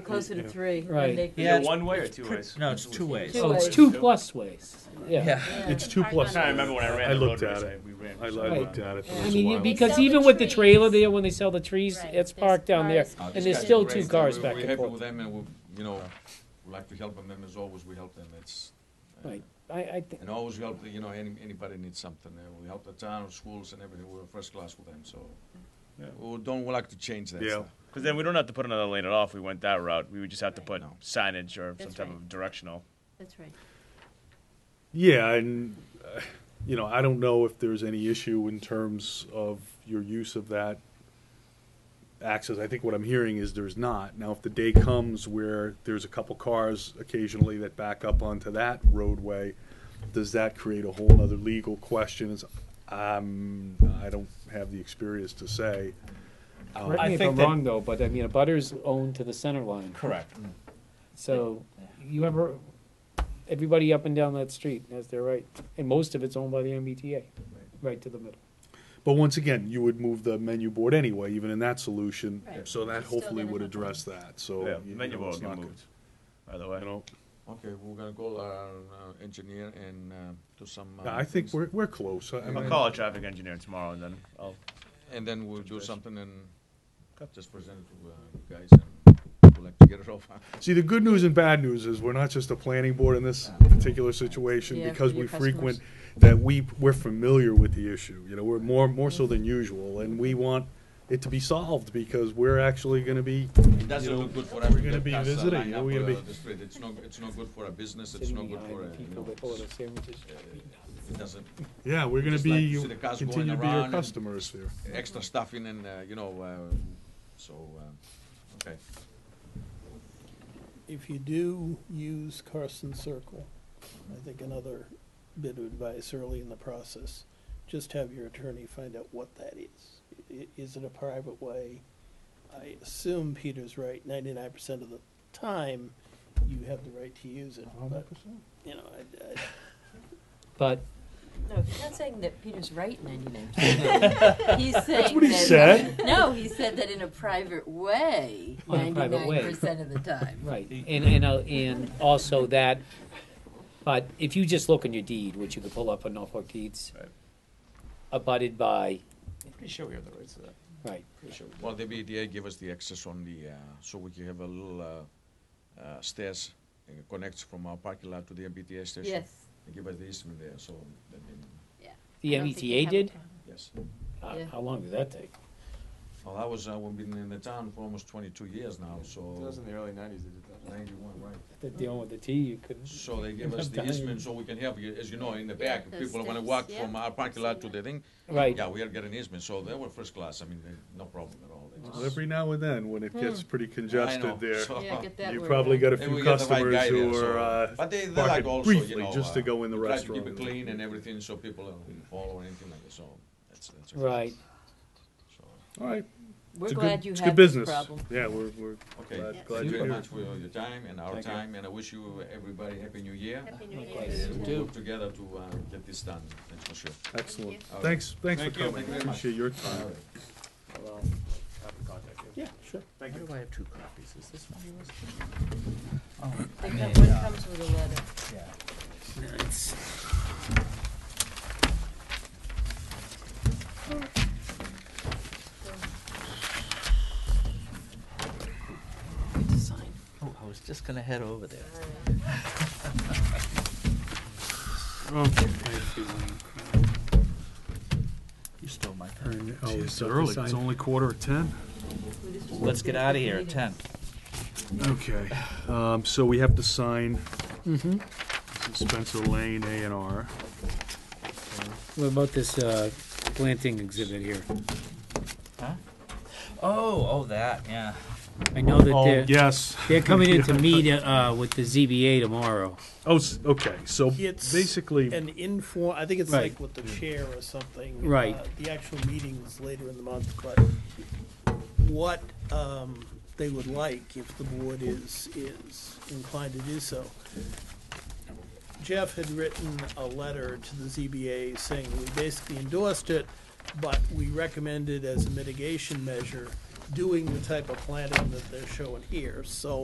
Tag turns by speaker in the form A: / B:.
A: closer to three.
B: Right.
A: when they-
C: Yeah,
D: Either
C: it's-
D: one way or
C: it's
D: two
C: pre-
D: ways?
C: No, it's two ways.
A: Two
B: Oh, it's
A: ways.
B: two plus ways. Yeah.
C: Yeah.
A: Yeah.
E: It's two
F: I
D: I'm
E: plus.
D: trying to remember when I ran
E: I
D: the
E: looked
D: road
E: at
D: race.
E: it.
D: I- we ran
E: I, I
D: for so long.
E: looked at it for
B: I
E: a
B: mean, you-
E: while.
B: because
F: They sell
B: even
F: the
B: with the
F: trees.
B: trailer there, when they sell the trees,
F: Right,
B: it's
F: there's
B: parked down there,
F: cars.
G: Uh,
B: and
G: these
B: there's
G: guys
B: still
G: are
B: two
G: great.
B: cars
G: We're-
B: back
G: We're
B: and
G: happy with
B: forth.
G: them, and we, you know, we like to help them, and as always, we help them. It's uh,
B: Right. I, I think,
G: And always we help, the- you know, any, anybody needs something. uh, We help the town, schools, and everything. We're first class with them, so
E: Yeah.
G: we don't like to change that
E: Yeah.
G: stuff.
D: Because then we don't have to put another lane at all if we went that route. We would just have to put
G: No.
D: signage or some
F: That's
D: type
F: right.
D: of directional.
F: That's right.
E: Yeah, and, uh, you know, I don't know if there's any issue in terms of your use of that access. I think what I'm hearing is there's not. Now, if the day comes where there's a couple cars occasionally that back up onto that roadway, does that create a whole other legal question? Is, um, I don't have the experience to say.
B: correct
C: I
B: me if
C: think
B: I'm
C: that-
B: wrong though, but I mean, a butter's owned to the center line.
C: Correct.
B: So you have a- everybody up and down that street has their right, and most of it's owned by the MBTA, right to the middle.
E: But once again, you would move the menu board anyway, even in that solution.
F: Right.
E: So that
F: It's still
E: hopefully
F: gonna
E: would
F: happen.
E: address that, so.
D: yeah,
E: you
D: menu
E: know, it's
D: board get
E: not
D: moved. By the way,
E: good, You know,
G: Okay, we're gonna call our uh, engineer and uh, do some. uh,
E: Yeah, I think
G: things,
E: we're, we're close. I- I
D: I'll
E: mean,
D: call a traffic engineer tomorrow and then I'll.
G: And then we'll do
D: base.
G: something and just present it to uh, you guys, and we'll like to get it over.
E: See, the good news and bad news is we're not just a planning board in this particular situation
A: Yeah,
E: because
A: for your
E: we frequent,
A: customers.
E: that we, we're familiar with the issue. You know, we're more, more so than usual and we want it to be solved because we're actually gonna be,
G: It doesn't look good for us to
E: gonna
G: get
E: be
G: cars, uh,
E: visiting,
G: lined
E: we're
G: up,
E: gonna be-
G: uh, the street. It's not, it's not good for our business, it's
B: Sitting
G: not good
B: behind
G: for, uh, you
B: People
G: know,
B: that order
G: it's-
B: sandwiches.
G: it doesn't,
E: yeah, we're gonna
G: Just like
E: be,
G: to see the cars going
E: continue to be
G: around
E: your
G: and-
E: customers here.
G: extra stuff in and, uh, you know, uh, so, uh, okay.
H: If you do use Carson Circle, I think another bit of advice early in the process, just have your attorney find out what that is. I- is it a private way? I assume Peter's right, ninety-nine percent of the time, you have the right to use it, but, you know, I, I,
B: But
A: No, he's not saying that Peter's right ninety-nine He's saying That's
E: what he said.
A: No, he said that in a private way,
B: On a private way.
A: ninety-nine percent of the time.
B: Right, and, and, uh, and also that, but if you just look in your deed, which you could pull up on Norfolk deeds,
D: Right.
B: abutted by,
D: Pretty sure we have the rights to that.
B: right,
G: Well, the BDA gave us the access on the, uh, so we can have a little uh, uh, stairs, and it connects from our parking lot to the MBTA station.
A: Yes,
G: They give us the easement there, so, I mean,
B: the
F: I don't think you
B: MBTA
F: have a
B: did?
F: problem.
G: yes.
B: How,
A: Yeah.
B: how long did that take?
G: Well, I was, uh, we've been in the town for almost twenty-two years now, so.
I: That was in the early nineties they did that.
G: Ninety-one, right.
B: That dealing with the T, you couldn't.
G: So they give us the
B: Sometimes.
G: easement so we can have, you- as you know, in the
F: Yeah,
G: back,
F: those
G: people wanna
F: steps,
G: walk
F: yeah.
G: from our parking lot to the thing.
B: Right,
G: Yeah, we are getting easement, so they were first class, I mean, they- no problem at all. They just-
E: Well, Every now and then, when it gets pretty
G: I know,
E: congested there,
G: so-
A: yeah, get that
E: you
A: word
E: probably
A: out.
E: got a
G: Maybe
E: few
G: we get the right
E: customers
G: guy there,
E: who
G: so-
E: are, uh,
G: But they, they
E: park
G: like
E: it
G: also, you
E: briefly
G: know,
E: just to
G: uh,
E: go in the
G: try to
E: restaurant.
G: keep it clean and everything, so people don't fall or anything like that, so that's, that's. okay.
B: right.
G: So,
E: all right.
A: We're
E: It's a
A: glad
E: good-
A: you
E: it's
A: had
E: good
A: this
E: business.
A: problem.
E: Yeah, we're, we're
G: Okay,
E: glad, glad
G: thank you
E: you're
G: very
E: here.
G: much for your time and our
E: Thank you.
G: time, and I wish you, everybody, happy new year.
F: Happy New
B: Likewise.
F: Year.
G: And
B: do.
G: we'll work together to, uh, get this done, that's for sure.
E: Excellent.
G: you.
E: Thanks, thanks for
G: Thank you.
E: coming.
G: Thank you very much.
E: Appreciate your time.
D: Well, have to contact you.
H: yeah, sure.
D: Thank you.
C: do I have two copies? Is this one yours?
A: The cup- One
E: uh,
A: comes with a letter.
C: Yeah. Oh, I was just gonna head over there. You stole my pen.
E: Oh, it's early. It's only quarter of ten.
C: Let's get out of here at ten.
E: Okay, um, so we have to sign
B: Mm-hmm.
E: this is Spencer Lane A and R.
B: What about this, uh, planting exhibit here?
C: Oh, oh, that, yeah.
B: I know that
E: Oh,
B: they're,
E: yes.
B: they're coming in to meet, uh, with the ZBA tomorrow.
E: Oh, s- okay, so
H: It's
E: basically,
H: an inform, I think it's
B: Right.
H: like with the chair or something.
B: Right.
H: Uh, The actual meeting's later in the month, but what um, they would like, if the board is, is inclined to do so. Jeff had written a letter to the ZBA saying we basically endorsed it, but we recommended as a mitigation measure doing the type of planting that they're showing here. So